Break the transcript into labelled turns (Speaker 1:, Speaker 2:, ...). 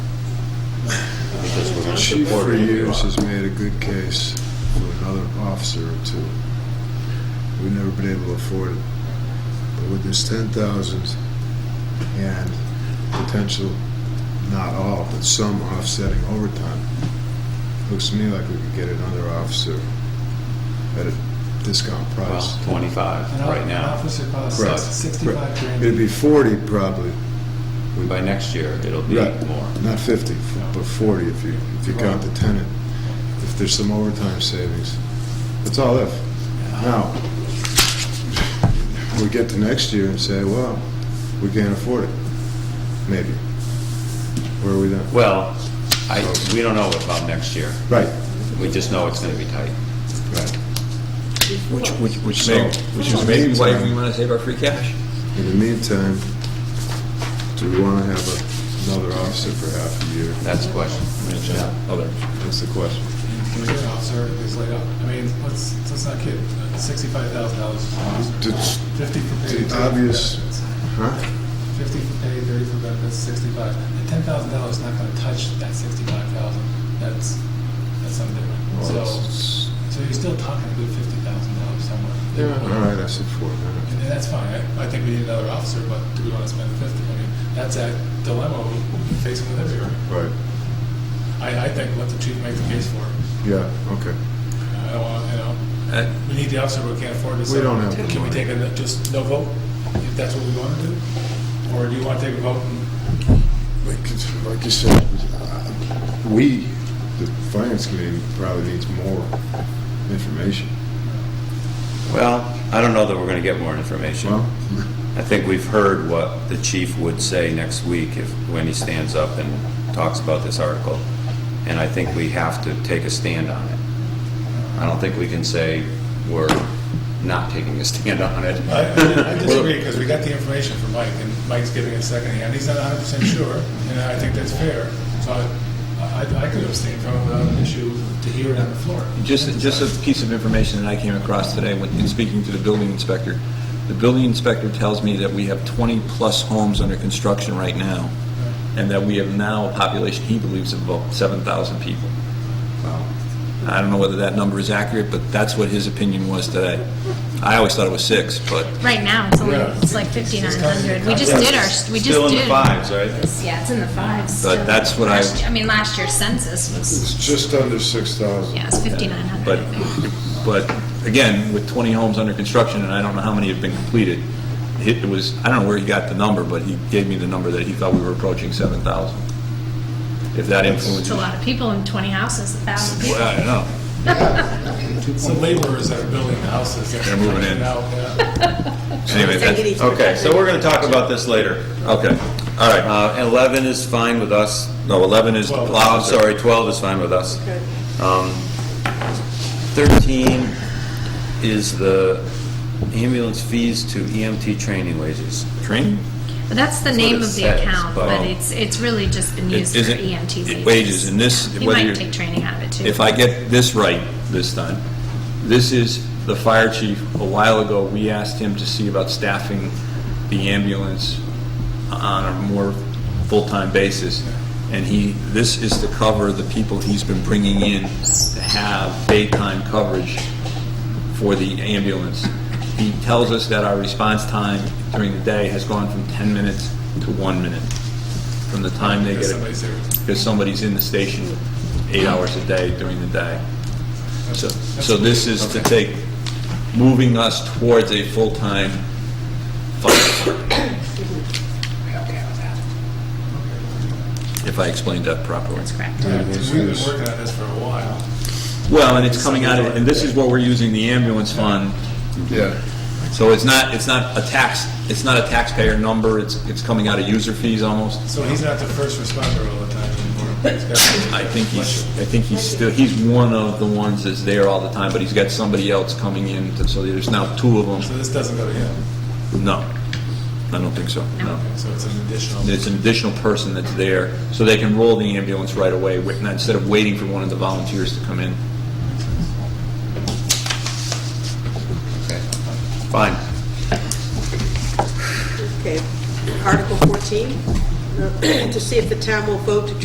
Speaker 1: and
Speaker 2: Chief
Speaker 1: support
Speaker 2: for
Speaker 1: it.
Speaker 2: years has made a good case for another officer or two. We've never been able to afford it. But with this ten thousand and potential, not all, but some offsetting overtime, looks to me like we could get another officer at a discount price.
Speaker 1: Well, 25
Speaker 3: An
Speaker 1: right
Speaker 3: off- An
Speaker 1: now.
Speaker 3: officer
Speaker 2: Correct.
Speaker 3: costs sixty-five grand.
Speaker 2: It'd be forty probably,
Speaker 1: And By next year, it'll be
Speaker 2: Right.
Speaker 1: more.
Speaker 2: not fifty, f- but forty if you, if you count the tenant. If there's some overtime savings, that's all if. Now, we get to next year and say, well, we can't afford it, maybe. Where are we then?
Speaker 1: Well, I, we don't know about next year.
Speaker 2: Right,
Speaker 1: We just know it's going to be tight.
Speaker 2: right.
Speaker 4: Which, which, which
Speaker 2: So-
Speaker 4: may, which is maybe why we want to save our free cash.
Speaker 2: In the meantime, do we want to have a- another officer for half a year?
Speaker 1: That's the question.
Speaker 4: Other.
Speaker 2: That's the question.
Speaker 3: Computer officer is laid off. I mean, let's, let's not kid, sixty-five thousand dollars for an officer.
Speaker 2: It's
Speaker 3: Fifty for pay.
Speaker 2: the
Speaker 3: 30 for
Speaker 2: obvious-
Speaker 3: benefits.
Speaker 2: Huh?
Speaker 3: Fifty for pay, thirty for benefits, sixty-five. And ten thousand dollars is not gonna touch that sixty-five thousand. That's, that's something different.
Speaker 2: Well,
Speaker 3: So,
Speaker 2: it's-
Speaker 3: so you're still talking a good fifty thousand dollars somewhere.
Speaker 2: All right, I said four minutes.
Speaker 3: And that's fine. I, I think we need another officer, but do we want to spend fifty? I mean, that's a dilemma we're facing with everyone.
Speaker 2: Right,
Speaker 3: I, I think let the chief make the case for it.
Speaker 2: yeah, okay.
Speaker 3: I don't want, you know,
Speaker 4: Uh,
Speaker 3: we need the officer, but we can't afford it. so
Speaker 2: We don't have the
Speaker 3: Can we
Speaker 2: money.
Speaker 3: take a, just no vote, if that's what we want to do? Or do you want to take a vote and,
Speaker 2: Like, it's- like you said, uh, we, the finance committee, probably needs more information.
Speaker 1: Well, I don't know that we're going to get more information.
Speaker 2: Well,
Speaker 1: I think we've heard what the chief would say next week if, when he stands up and talks about this article. And I think we have to take a stand on it. I don't think we can say we're not taking a stand on it.
Speaker 3: I I disagree, because we got the information from Mike, and Mike's giving it secondhand, he's not hundred percent sure, and I think that's fair. So I, I I could abstain from it without an issue to hear it on the floor.
Speaker 4: Just, just a piece of information that I came across today when, in speaking to the building inspector. The building inspector tells me that we have 20-plus homes under construction right now, and that we have now a population, he believes, of about 7,000 people. I don't know whether that number is accurate, but that's what his opinion was today. I always thought it was six, but
Speaker 5: Right now, it's only,
Speaker 3: Yeah.
Speaker 5: it's like fifty-nine hundred. We just
Speaker 1: Yeah.
Speaker 5: did our, we just did.
Speaker 1: Still in the fives, right?
Speaker 5: It's- Yeah, it's in the fives.
Speaker 4: But that's what I-
Speaker 5: Last- I mean, last year's census
Speaker 2: It's
Speaker 5: was,
Speaker 2: just under six thousand.
Speaker 5: yeah, it's fifty-nine
Speaker 4: But,
Speaker 5: hundred, I think.
Speaker 4: but again, with 20 homes under construction, and I don't know how many have been completed, it was, I don't know where he got the number, but he gave me the number that he thought we were approaching 7,000. If that
Speaker 5: It's
Speaker 4: influences.
Speaker 5: a lot of people in twenty houses, a thousand people.
Speaker 4: Well, I don't know.
Speaker 3: Some laborers that are building houses.
Speaker 4: They're moving in.
Speaker 3: Now, yeah.
Speaker 4: Anyway, that-
Speaker 1: Okay, so we're going to talk about this later.
Speaker 4: okay, all right.
Speaker 1: Uh, 11 is fine with us.
Speaker 4: No, 11 is,
Speaker 1: Well, I'm sorry, 12 is fine with us. Um, 13 is the ambulance fees to EMT training wages.
Speaker 4: training?
Speaker 5: But that's the
Speaker 1: That's what
Speaker 5: name
Speaker 1: it
Speaker 5: of the
Speaker 1: says,
Speaker 5: account,
Speaker 1: but-
Speaker 5: but it's, it's really just been used for
Speaker 4: um,
Speaker 5: E
Speaker 4: Isn't-
Speaker 5: EMT wages.
Speaker 4: Wages, and this, whether
Speaker 5: You
Speaker 4: you're.
Speaker 5: might take training out of it too.
Speaker 4: if I get this right this time, this is the fire chief. A while ago, we asked him to see about staffing the ambulance on a more full-time basis. And he, this is to cover the people he's been bringing in to have daytime coverage for the ambulance. He tells us that our response time during the day has gone from 10 minutes to one minute from the time they
Speaker 3: Because
Speaker 4: get. a-
Speaker 3: somebody's there.
Speaker 4: because somebody's in the station eight hours a day during the day. So, so this is to take, moving us towards a full-time fire department. If I explained that properly.
Speaker 5: That's correct.
Speaker 3: Yeah, We've been working on this for a while.
Speaker 4: Well, and it's coming out of, and this is what we're using the ambulance fund.
Speaker 2: Yeah,
Speaker 4: So it's not, it's not a tax, it's not a taxpayer number, it's, it's coming out of user fees almost.
Speaker 3: So he's not the first responder all the time anymore. He's got-
Speaker 4: I think he's, I think he's still, he's one of the ones that's there all the time, but he's got somebody else coming in, to- so there's now two of
Speaker 3: So
Speaker 4: them.
Speaker 3: this doesn't go to him.
Speaker 4: No, I don't think so, no.
Speaker 3: Okay, So it's an additional.
Speaker 4: It's an additional person that's there, so they can roll the ambulance right away, wi- not- instead of waiting for one of the volunteers to come in.
Speaker 1: Okay, Fine.
Speaker 6: Okay, Article 14, uh, to see if the town will vote to